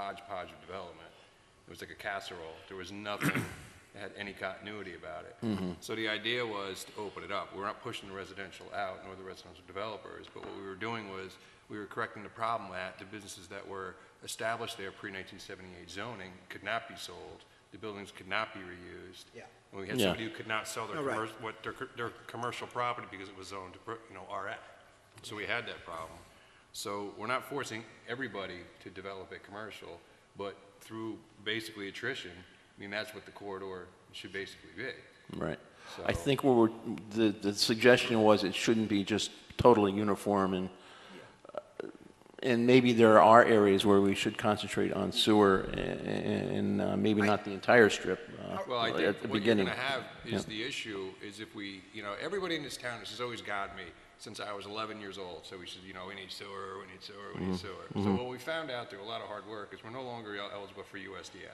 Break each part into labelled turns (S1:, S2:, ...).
S1: hodgepodge of development. It was like a casserole. There was nothing that had any continuity about it. So the idea was to open it up. We're not pushing the residential out, nor the residential developers, but what we were doing was, we were correcting the problem that the businesses that were established there pre-1978 zoning could not be sold, the buildings could not be reused.
S2: Yeah.
S1: And we had
S3: Yeah.
S1: somebody who could not sell their
S2: Oh, right.
S1: commercial, what, their, co- their commercial property because it was zoned, you know, RF. So we had that problem. So we're not forcing everybody to develop it commercial, but through basically attrition, I mean, that's what the corridor should basically be.
S3: Right.
S1: So-
S3: I think what we're, the, the suggestion was it shouldn't be just totally uniform and, and maybe there are areas where we should concentrate on sewer a- a- and uh, maybe not the entire strip uh,
S1: Well, I
S3: at the
S1: think what you're
S3: beginning.
S1: gonna have is
S3: Yeah.
S1: the issue, is if we, you know, everybody in this town, this has always got me since I was eleven years old, so we said, you know, we need sewer, we need sewer,
S3: Mm-hmm.
S1: we need sewer. So what we found out through a lot of hard work is we're no longer el- eligible for USDA.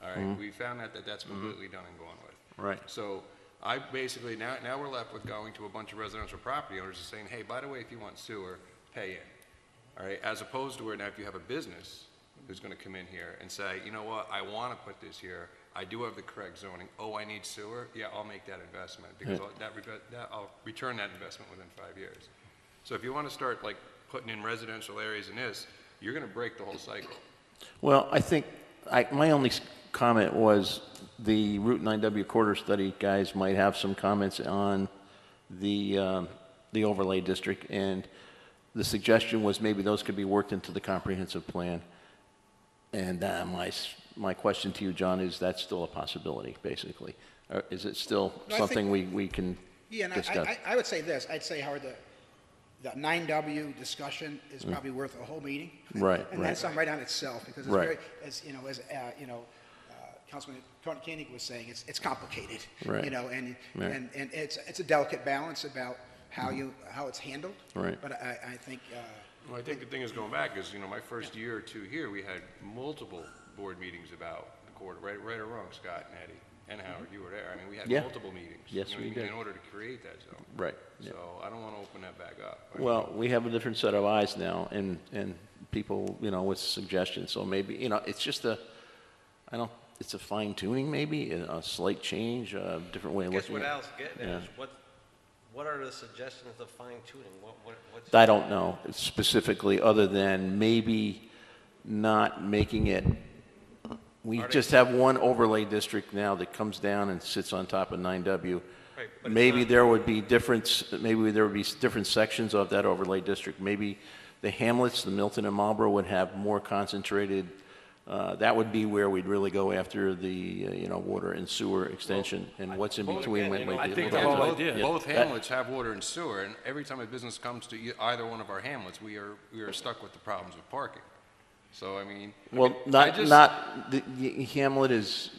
S1: All
S3: Mm-hmm.
S1: right, we found out that that's completely done and gone with.
S3: Right.
S1: So I basically, now, now we're left with going to a bunch of residential property owners and saying, hey, by the way, if you want sewer, pay in. All right, as opposed to where now if you have a business who's gonna come in here and say, you know what, I wanna put this here, I do have the correct zoning, oh, I need sewer, yeah, I'll make that investment, because I'll- that, reve- that, I'll return that investment within five years. So if you wanna start like putting in residential areas in this, you're gonna break the whole cycle.
S3: Well, I think, I, my only s- comment was the Route 9W corridor study guys might have some comments on the, um, the overlay district, and the suggestion was maybe those could be worked into the comprehensive plan. And uh, my, s- my question to you, John, is that still a possibility, basically? Or is it still
S2: No, I think-
S3: something we, we can
S2: Yeah, and
S3: discuss?
S2: I- I, I would say this, I'd say, Howard, the, the nine W discussion is probably worth a whole meeting.
S3: Mm. Right,
S2: And
S3: right.
S2: that's on right on itself, because it's
S3: Right.
S2: very, as, you know, as, uh, you know, uh, Councilman Tony Koenig was saying, it's, it's complicated.
S3: Right.
S2: You know, and,
S3: Right. Mm-hmm.
S2: and, and it's, it's a delicate balance about how you, how it's handled.
S3: Right.
S2: But I, I think, uh,
S1: Well, I think the thing is going back is, you know, my first year or two here, we had multiple board meetings about the corridor, right, right or wrong, Scott and Eddie and Howard, you were there. I mean, we had
S3: Mm-hmm. Yeah.
S1: multiple meetings.
S3: Yes,
S1: you know,
S3: we
S1: in-
S3: did.
S1: In order to create that zone.
S3: Right, yeah.
S1: So I don't want to open that back up. I mean,
S3: Well, we have a different set of eyes now and, and people, you know, with suggestions. So maybe, you know, it's just a, I don't, it's a fine tuning maybe, a a slight change, a different way of
S4: Guess
S3: looking
S4: what
S3: at it.
S4: Al's getting
S3: Yeah.
S4: at is what, what are the suggestions of fine tuning? What, what, what's?
S3: I don't know specifically, other than maybe not making it, we just have one overlay district now that comes down and sits on top of 9W.
S4: Right, but it's
S3: Maybe
S4: not-
S3: there would be difference, maybe there would be s- different sections of that overlay district. Maybe the hamlets, the Milton and Marlboro would have more concentrated, uh, that would be where we'd really go after the, uh, you know, water and sewer extension, and what's in
S4: well,
S3: between
S4: again,
S3: might
S4: you
S3: might
S4: know,
S3: be.
S4: I
S3: a little
S4: think the
S3: bit-
S4: whole
S1: Both,
S3: yeah,
S1: both
S3: that-
S1: hamlets have water and sewer, and every time a business comes to e- either one of our hamlets, we are, we are stuck with the problems with parking. So, I mean. I
S3: Well,
S1: mean, I
S3: not,
S1: just-
S3: not, the- the Hamlet is,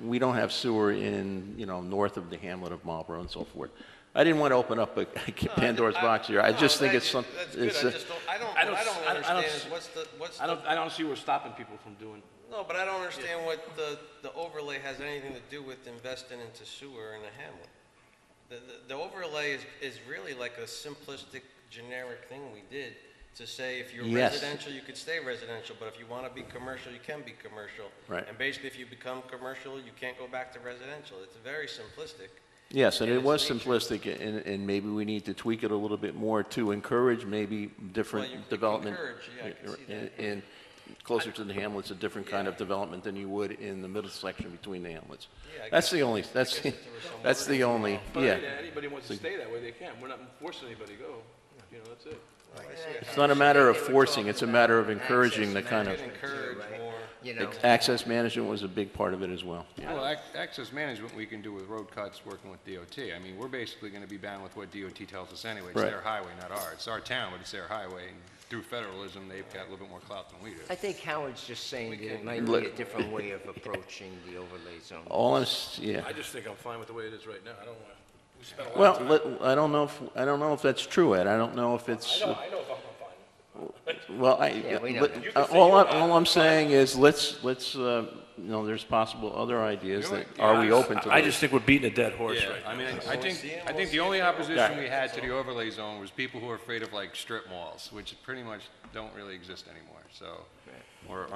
S3: we don't have sewer in, you know, north of the hamlet of Marlboro and so forth. I didn't want to open up a Pandora's box here. I
S4: No,
S3: just think
S4: that-
S3: it's some,
S4: That's good, I
S3: it's, uh, a-
S4: just don't, I don't,
S5: I don't
S4: what I
S5: s-
S4: don't
S5: I- I don't
S4: understand
S5: s-
S4: is what's the, what's
S5: I
S4: the,
S5: don't, I don't see what's stopping people from doing,
S4: no, but I don't understand what the, the overlay has anything to do with investing into sewer in a hamlet. The, the- the overlay is, is really like a simplistic, generic thing we did to say if you're
S3: Yes.
S4: residential, you could stay residential, but if you want to be commercial, you can be commercial.
S3: Right.
S4: And basically, if you become commercial, you can't go back to residential. It's very simplistic.
S3: yes, and
S4: in
S3: it
S4: its
S3: was
S4: nature.
S3: simplistic, and, and maybe we need to tweak it a little bit more to encourage maybe
S4: Well, you-
S3: different
S4: you
S3: development.
S4: encourage, yeah, I can see that.
S3: In, closer to the hamlets, a different kind of development than you would in the middle section between the hamlets.
S4: Yeah, I
S3: That's
S4: guess-
S3: the only, that's,
S4: guess if there was some
S3: that's the
S4: wording
S3: only,
S5: but
S3: yeah.
S5: yeah, anybody wants to stay that way, they can. We're not forcing anybody to go, you know, that's it.
S3: It's not a matter of forcing, it's a matter of encouraging the kind of.
S4: Could encourage more.
S6: you know,
S3: Access management was a big part of it as well.
S1: Well, ac- access management, we can do with road cuts, working with DOT. I mean, we're basically going to be bound with what DOT tells us anyway. It's
S3: Right.
S1: their highway, not ours. It's our town, but it's their highway. And Through federalism, they've got a little bit more clout than we do.
S6: I think Howard's just saying that it might be a different way of approaching the overlay zone.
S3: All I'm, s- yeah.
S5: I just think I'm fine with the way it is right now, I don't want, we spent a lot
S3: Well,
S5: of time.
S3: let- I don't know if, I don't know if that's true, Ed. I don't know if
S5: I
S3: it's, uh,
S5: know, I know if I'm fine.
S3: well,
S6: Yeah, we
S3: I,
S6: know
S3: but- uh,
S6: that.
S5: You can say
S3: all,
S5: you're
S3: I-
S5: not.
S3: all I'm saying is, let's, let's, uh, you know, there's possible other ideas that, are we open to those?
S7: I just think we're beating a dead horse
S1: Yeah,
S7: right
S1: I mean, I- I
S4: we'll
S1: think,
S4: see it,
S1: I
S4: we'll
S1: think
S4: see
S1: the
S4: if
S1: only
S4: it works.
S1: opposition we had to the overlay zone was people who are afraid of like strip malls, which pretty much don't really exist anymore, so, or